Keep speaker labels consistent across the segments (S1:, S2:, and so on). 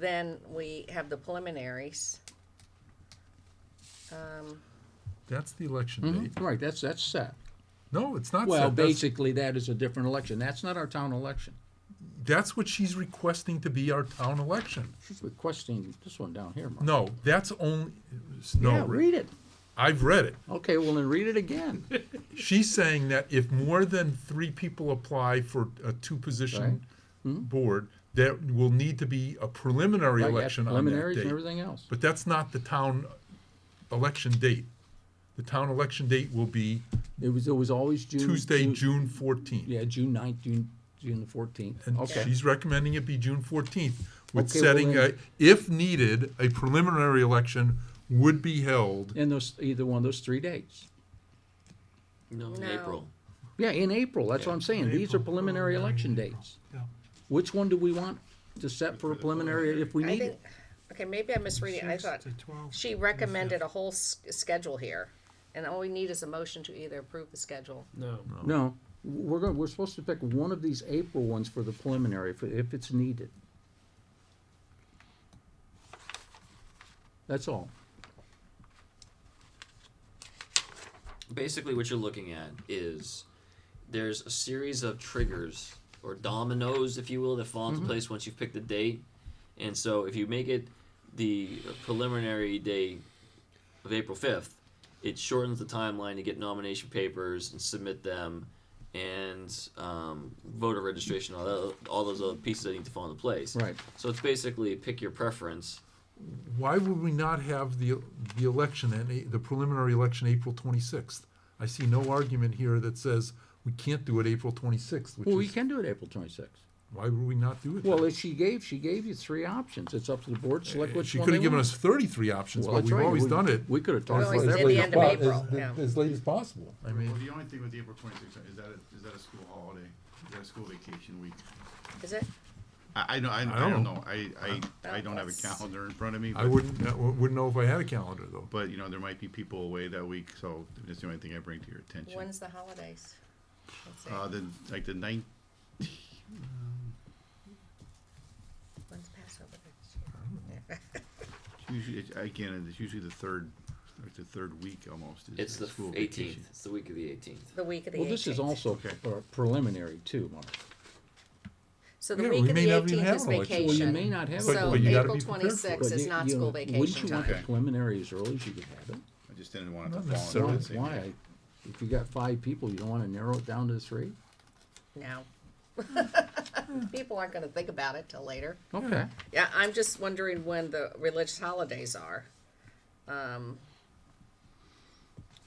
S1: Then we have the preliminaries. Um,
S2: That's the election date.
S3: Mhm, Right, that's, that's set.
S2: No, it's not.
S3: Well,
S2: set. That's-
S3: basically, that is a different election. That's not our town election.
S2: That's what she's requesting to be our town election.
S3: She's requesting this one down here, Mark.
S2: No, that's only, no.
S3: Yeah,
S2: Rick.
S3: read it.
S2: I've read it.
S3: Okay, well, then read it again.
S2: She's saying that if more than three people apply for a two-position board, there will need to be a preliminary
S3: Hmm? Right,
S2: election on that
S3: Preliminaries and
S2: date.
S3: everything else.
S2: But that's not the town election date. The town election date will be
S3: It was, it was always June.
S2: Tuesday, June fourteenth.
S3: Yeah, June ninth, June, June the fourteenth.
S2: And
S3: Okay.
S2: she's recommending it be June fourteenth, with
S3: Okay, well
S2: setting a,
S3: then-
S2: if needed, a preliminary election would be held.
S3: And those, either one of those three dates.
S4: No, in
S1: No.
S4: April.
S3: Yeah, in April, that's what I'm saying. These are preliminary election dates. Which one do we want to set for a preliminary if we
S1: I
S3: need it?
S1: think, okay, maybe I'm misreading, I thought she recommended a whole s- schedule here. And all we need is a motion to either approve the schedule.
S4: No.
S3: No, we're going, we're supposed to pick one of these April ones for the preliminary, if, if it's needed. That's all.
S4: Basically, what you're looking at is there's a series of triggers or dominoes, if you will, that fall into place once you've picked the date. And so, if you make it the preliminary day of April 5th, it shortens the timeline to get nomination papers and submit them and um, voter registration, all, tho- all those other pieces that need to fall into place.
S3: Right.
S4: So, it's basically pick your preference.
S2: Why would we not have the, the election and a- the preliminary election April twenty-sixth? I see no argument here that says we can't do it April twenty-sixth,
S3: Well, we
S2: which is,
S3: can do it April twenty-sixth.
S2: why would we not do it?
S3: Well,
S2: then?
S3: if she gave, she gave you three options. It's up to the board, to select which
S2: Eh, She
S3: one
S2: could
S3: they
S2: have given
S3: want.
S2: us thirty-three options,
S3: Well,
S2: but
S3: that's
S2: we've
S3: right.
S2: always
S3: We-
S2: done it.
S3: We could have talked
S1: Well,
S3: about
S1: it's
S3: that.
S1: at the end of
S2: Well, as-
S1: April, yeah.
S2: As late as possible, I
S5: Well,
S2: mean,
S5: the only thing with the April twenty-sixth, is that, a- is that a school holiday? Is that a school vacation week?
S1: Is it?
S5: I, I know, I,
S2: don't
S5: I don't
S2: know.
S5: know. I, I, I don't have a
S1: That's-
S5: calendar in front of me,
S2: I
S5: but,
S2: wouldn't, I wouldn't know if I had a calendar though.
S5: but, you know, there might be people away that week, so that's the only thing I bring to your attention.
S1: When's the holidays? Let's see.
S5: Uh, the, like the ninth,
S1: When's Passover?
S5: usually, it's- again, it's usually the third, like the third week almost. is
S4: It's
S5: a
S4: the
S5: school
S4: 18th.
S5: vacation.
S4: It's the week of the 18th.
S1: The week of the
S3: Well,
S1: eighteenth.
S3: this is also
S5: Okay.
S3: pre- preliminary too, Mark.
S1: So the
S2: Yeah,
S1: week
S2: we
S1: of
S2: may
S1: the
S2: not even
S1: eighteenth
S2: have
S1: is
S2: an election.
S1: vacation.
S2: Well,
S3: you may not have
S2: But-
S1: So
S2: but you gotta
S1: April
S2: be prepared for it.
S1: twenty-sixth
S3: But
S1: is
S3: you-
S1: not
S3: you-
S1: school
S3: Wouldn't
S1: vacation
S3: you want the
S1: time.
S5: Okay.
S3: preliminary as early as you could have it?
S5: I just didn't want it
S2: Not
S5: to fall
S2: necessarily.
S5: on
S3: Why,
S5: the same
S3: why?
S5: day.
S3: If you got five people, you don't wanna narrow it down to three?
S1: No. People aren't gonna think about it till later.
S3: Okay.
S1: Yeah, I'm just wondering when the religious holidays are. Um,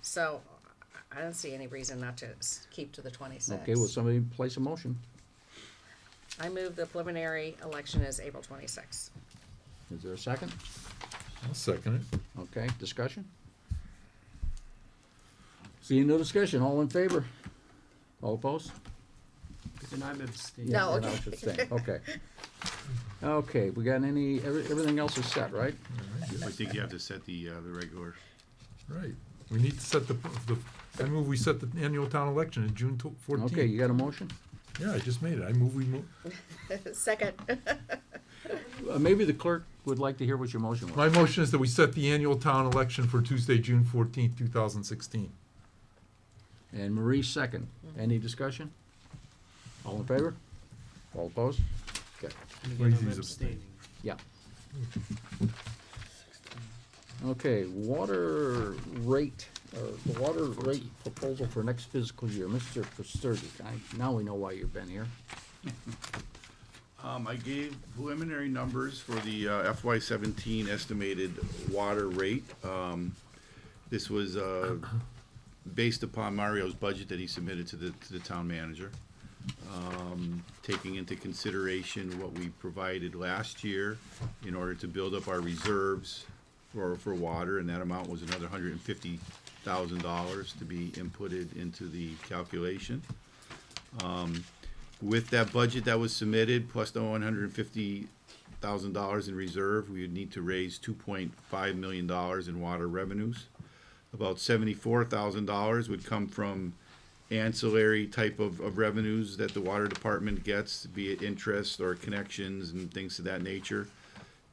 S1: so I don't see any reason not to s- keep to the twenty-sixth.
S3: Okay, will somebody place a motion?
S1: I move the preliminary election is April twenty-sixth.
S3: Is there a second?
S2: I'll second it.
S3: Okay, discussion? Seeing no discussion, all in favor? All opposed?
S6: And I'm abstaining.
S1: No,
S3: And I
S1: okay.
S3: should say, Okay. Okay, we got any, every- everything else is set, right?
S5: I think you have to set the, uh, the regular,
S2: Right, we need to set the, the, I move we set the annual town election in June fourteenth.
S3: Okay, you got a motion?
S2: Yeah, I just made it, I move we move,
S1: Second,
S3: Uh, Maybe the clerk would like to hear what your motion was.
S2: my motion is that we set the annual town election for Tuesday, June fourteenth, two thousand sixteen.
S3: And Marie, second. Any discussion? All in favor? All opposed? Okay.
S6: And
S2: Where
S6: again,
S2: is
S6: I'm
S2: these abstain?
S6: abstaining.
S3: Yeah. Okay, water rate, uh, the water rate proposal for next fiscal year, Mr. Pasterdick, I, now we know why you've been here.
S5: Um, I gave preliminary numbers for the FY seventeen estimated water rate. Um, This was, uh, based upon Mario's budget that he submitted to the, to the town manager. Um, Taking into consideration what we provided last year in order to build up our reserves for, for water, and that amount was another hundred and fifty thousand dollars to be inputted into the calculation with that budget that was submitted, plus the one hundred and fifty thousand dollars in reserve, we would need to raise two point five million dollars in water revenues. About seventy-four thousand dollars would come from ancillary type of, of revenues that the water department gets, be it interest or connections and things of that nature.